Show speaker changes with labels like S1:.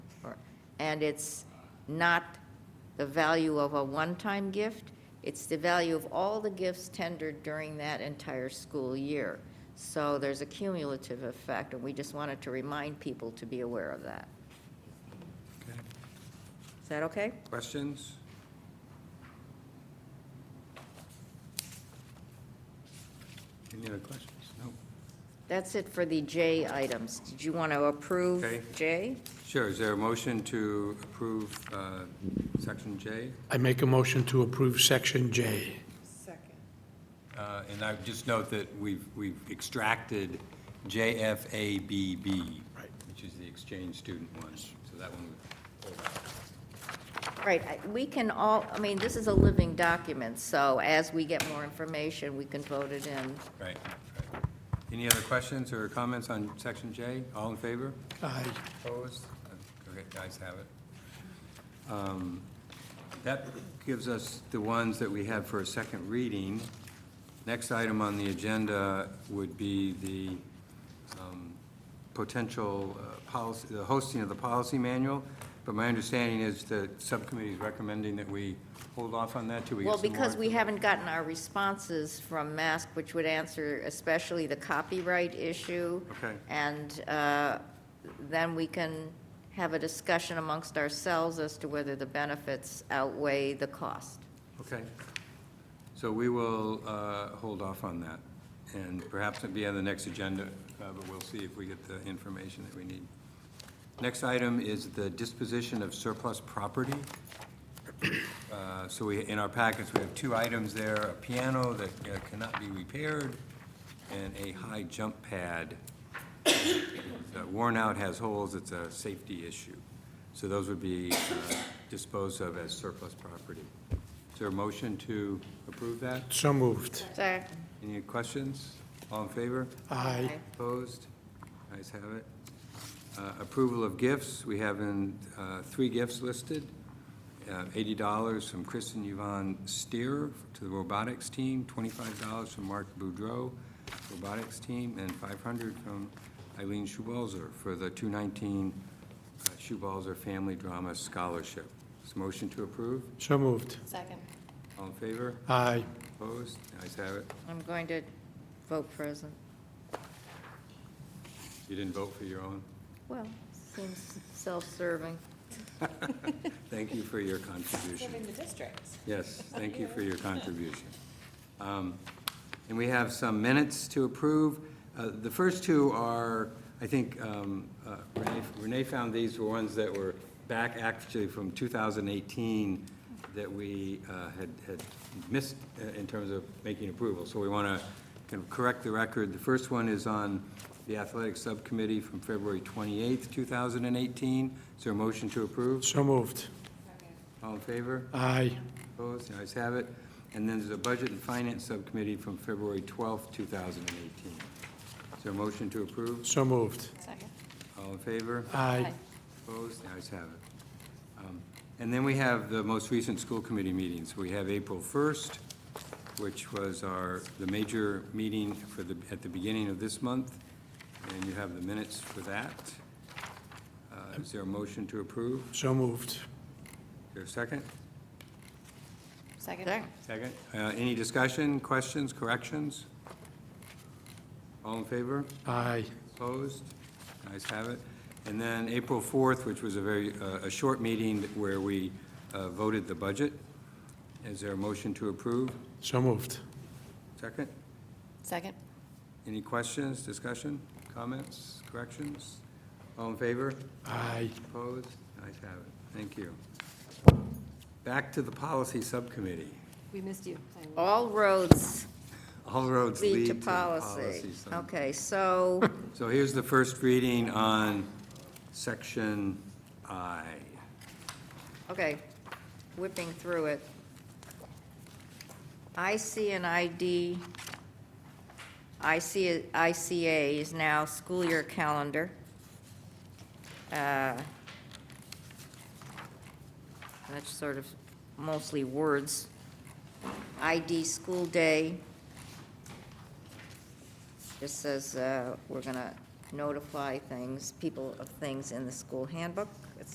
S1: and it's not the value of a one-time gift, it's the value of all the gifts tendered during that entire school year. So there's a cumulative effect, and we just wanted to remind people to be aware of that.
S2: Okay.
S1: Is that okay?
S2: Questions? Any other questions? No.
S1: That's it for the J items. Did you want to approve
S2: Okay.
S1: J?
S2: Sure, is there a motion to approve uh, section J?
S3: I make a motion to approve Section J.
S4: Second.
S2: Uh, And I would just note that we've, we've extracted JFABB,
S3: Right.
S2: which is the exchange student one, so that one we pulled out.
S1: Right, I- we can all, I mean, this is a living document, so as we get more information, we can vote it in.
S2: Right. right. Any other questions or comments on section J? All in favor?
S3: Aye.
S2: Opposed? Okay, guys have it. Um, That gives us the ones that we have for a second reading. Next item on the agenda would be the um, potential uh, policy, the hosting of the policy manual, but my understanding is the subcommittee is recommending that we hold off on that till we get
S1: Well,
S2: some more
S1: because we
S2: information.
S1: haven't gotten our responses from MASC, which would answer especially the copyright issue.
S2: Okay.
S1: And uh, then we can have a discussion amongst ourselves as to whether the benefits outweigh the cost.
S2: Okay. So we will uh, hold off on that, and perhaps it'll be on the next agenda, uh, but we'll see if we get the information that we need. Next item is the disposition of surplus property. Uh, So we, in our packets, we have two items there, a piano that uh, cannot be repaired, and a high jump pad. Uh, Worn out, has holes, it's a safety issue. So those would be uh, disposed of as surplus property. Is there a motion to approve that?
S3: So moved.
S1: Sorry.
S2: Any questions? All in favor?
S3: Aye.
S2: Opposed? Ayes have it. Uh, Approval of gifts, we have in, uh, three gifts listed. Uh, Eighty dollars from Kristen Yvonne Steer to the robotics team, twenty-five dollars from Mark Boudreau, robotics team, and five hundred from Eileen Schubalzer for the two nineteen Schubalzer Family Drama Scholarship. Is motion to approve?
S3: So moved.
S4: Second.
S2: All in favor?
S3: Aye.
S2: Opposed? Ayes have it.
S1: I'm going to vote present.
S2: You didn't vote for your own?
S1: Well, seems self-serving.
S2: Thank you for your contribution.
S4: Serving the districts.
S2: Yes, thank you for your contribution. Um, And we have some minutes to approve. Uh, The first two are, I think um, uh, Renee- Renee found these were ones that were back actually from 2018 that we uh, had had missed uh, in terms of making approval. So we want to kind of correct the record. The first one is on the athletic subcommittee from February 28th, 2018. Is there a motion to approve?
S3: So moved.
S2: All in favor?
S3: Aye.
S2: Opposed, the ayes have it. And then there's a Budget and Finance Subcommittee from February 12th, 2018. Is there a motion to approve?
S3: So moved.
S4: Second.
S2: All in favor?
S3: Aye.
S2: Opposed, the ayes have it. Um, And then we have the most recent school committee meetings. We have April 1st, which was our, the major meeting for the, at the beginning of this month, and you have the minutes for that. Uh, Is there a motion to approve?
S3: So moved.
S2: Is there a second?
S4: Second.
S1: Second.
S2: Second. Uh, Any discussion, questions, corrections? All in favor?
S3: Aye.
S2: Opposed? Ayes have it. And then April 4th, which was a very, uh, a short meeting where we uh, voted the budget. Is there a motion to approve?
S3: So moved.
S2: Second?
S4: Second.
S2: Any questions, discussion, comments, corrections? All in favor?
S3: Aye.
S2: Opposed? Ayes have it. Thank you. Back to the policy subcommittee.
S4: We missed you.
S1: All roads
S2: All roads
S1: lead to
S2: the
S1: policy.
S2: subcommittee.
S1: Okay, so,
S2: So here's the first reading on section I.
S1: okay, whipping through it. IC and ID, IC, ICA is now school year calendar. Uh, That's sort of mostly words. ID school day. Just says, uh, we're gonna notify things, people of things in the school handbook.